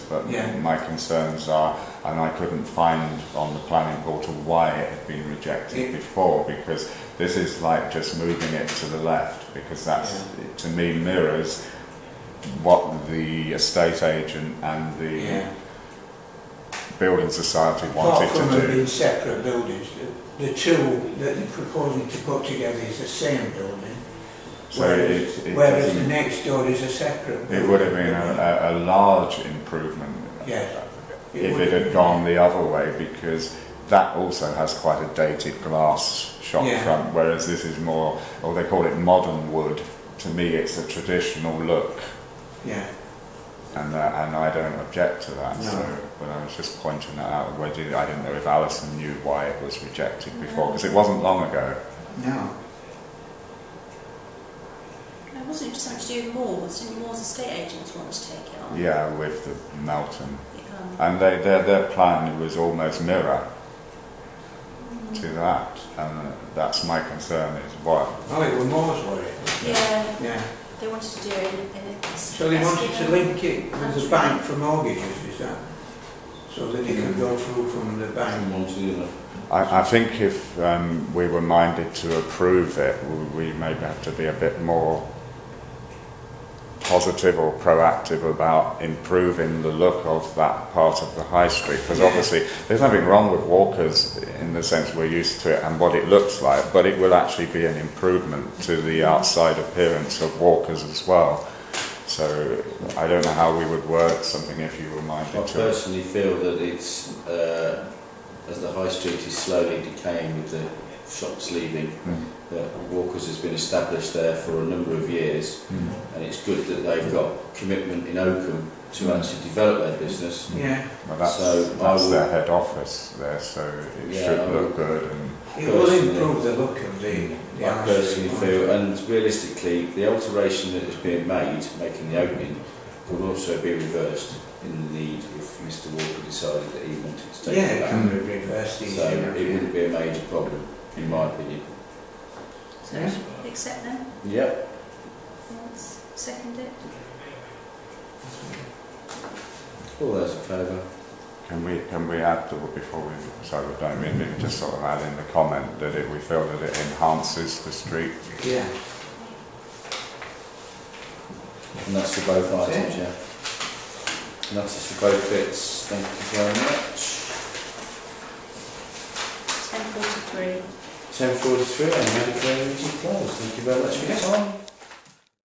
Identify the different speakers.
Speaker 1: but
Speaker 2: Yeah.
Speaker 1: my concerns are, and I couldn't find on the planning portal why it had been rejected
Speaker 2: Yeah.
Speaker 1: before, because this is like just moving it to the left, because that's it to me mirrors what the estate agent and the
Speaker 2: yeah.
Speaker 1: building society
Speaker 2: Apart
Speaker 1: wanted
Speaker 2: from
Speaker 1: to
Speaker 2: them
Speaker 1: do.
Speaker 2: being separate buildings, the, the two that they're proposing to put together is the same building,
Speaker 1: So
Speaker 2: whereas,
Speaker 1: it, it,
Speaker 2: whereas the
Speaker 1: doesn't-
Speaker 2: next door is a separate building.
Speaker 1: it would have been uh, a, a, a large improvement
Speaker 2: Yes.
Speaker 1: if
Speaker 2: would
Speaker 1: it
Speaker 2: have
Speaker 1: had
Speaker 2: been.
Speaker 1: gone the other way because that also has quite a dated glass shop
Speaker 2: Yeah.
Speaker 1: front, whereas this is more, or they call it modern wood. To me, it's a traditional look,
Speaker 2: Yeah,
Speaker 1: and uh, and I don't object to that.
Speaker 2: No.
Speaker 1: So, but I was just pointing that out. Whether I didn't know if Alison knew why it was rejected before because it wasn't long ago.
Speaker 2: no,
Speaker 3: No, wasn't it just something to do with Moores? Didn't Moores estate agents want to take it on?
Speaker 1: Yeah, with the Melton,
Speaker 3: Um,
Speaker 1: and they, their their plan was almost mirror
Speaker 3: Um,
Speaker 1: to that, and uh, that's my concern is why
Speaker 2: oh, it was Moore's worry,
Speaker 3: yeah,
Speaker 2: yeah.
Speaker 3: they wanted to do it. in- in a-
Speaker 2: So they wanted to link it with the
Speaker 3: That's
Speaker 2: bank for mortgages, is that? So that it can
Speaker 1: Mm.
Speaker 2: go through from the bank.
Speaker 4: From one to the other.
Speaker 1: I, I think if um, we were minded to approve it, we- we maybe have to be a bit more positive or proactive about improving the look of that part of the high street. Because
Speaker 2: Yeah.
Speaker 1: obviously, there's nothing wrong with walkers in the sense we're used to it and what it looks like, but it will actually be an improvement to the outside appearance of walkers as well. So I don't know how we would word something if you were
Speaker 4: I
Speaker 1: minded to.
Speaker 4: personally feel that it's, uh, as the high street is slowly decaying with the shops leaving,
Speaker 1: Mm.
Speaker 2: Hmm.
Speaker 4: that Walkers has been established there for a number of years,
Speaker 1: Mm.
Speaker 4: and it's good that they've got commitment in Oakham
Speaker 2: Hmm.
Speaker 4: to actually develop their business.
Speaker 1: Mm.
Speaker 2: Yeah,
Speaker 1: Well, that's,
Speaker 4: So,
Speaker 1: that's
Speaker 4: I
Speaker 1: their
Speaker 4: would-
Speaker 1: head office there, so it
Speaker 4: Yeah,
Speaker 1: should
Speaker 4: I
Speaker 1: look
Speaker 4: would-
Speaker 1: good. And
Speaker 2: it will
Speaker 4: Personally.
Speaker 2: improve the look of the, the
Speaker 4: I
Speaker 2: house.
Speaker 4: personally feel, and realistically, the alteration that is being made, making the opening, could also be reversed in the need if Mr Walker decided that he wanted to take
Speaker 2: Yeah,
Speaker 4: it
Speaker 2: it
Speaker 4: back.
Speaker 2: can be reversed
Speaker 4: So
Speaker 2: easily.
Speaker 4: it wouldn't be a major problem, in my opinion.
Speaker 3: So
Speaker 2: Yeah.
Speaker 3: should we accept them.
Speaker 4: Yep.
Speaker 3: Yes. Second it.
Speaker 4: All those in favour?
Speaker 1: can we can we add to before we sorry, we don't mean we just sort of add in the comment that it, we feel that it enhances the street.
Speaker 2: Yeah,
Speaker 4: And that's for both
Speaker 2: That's
Speaker 4: items, yeah. And that's it for both bits. Thank you very much.
Speaker 3: Ten forty-three.
Speaker 4: 10.43, I'm ready for energy close. Thank you very much for your time.